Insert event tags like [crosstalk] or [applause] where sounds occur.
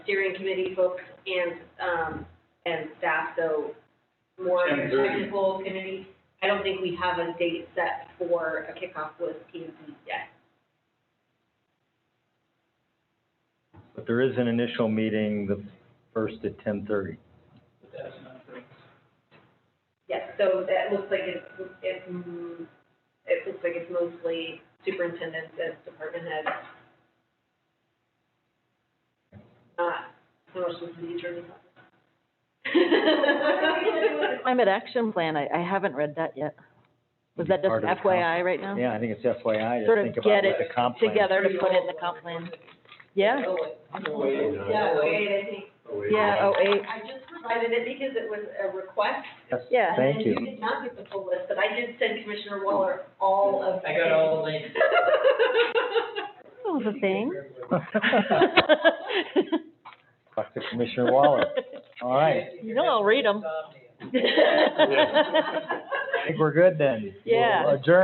steering committee folks and, um, and staff, so more 10:30. technical committee. I don't think we have a date set for a kickoff with P and Z yet. But there is an initial meeting, the first at ten thirty. But that's not great. Yes, so that looks like it's, it's, mm, it looks like it's mostly superintendents and department heads. Not so Uh, much the city attorney's office. [laughs] Climate action plan, I, I haven't read that yet. Was that just Part of the FYI right now? Yeah, I think it's FYI, Sort to of think about what get it the comp plan. Together to put in the comp plan. Yeah, Oh, wait. [laughs] Yeah, wait, I think, yeah, oh, eight, I just provided it because it was a request. Yes, yeah. Thank you. And you did not get the full list, but I did send Commissioner Waller all of. I got all the links. Oh, the thing. [laughs] Talk to Commissioner Waller. All right, [laughs] You [laughs] know I'll read 'em. I think we're good then. Yeah. We'll Adjourn.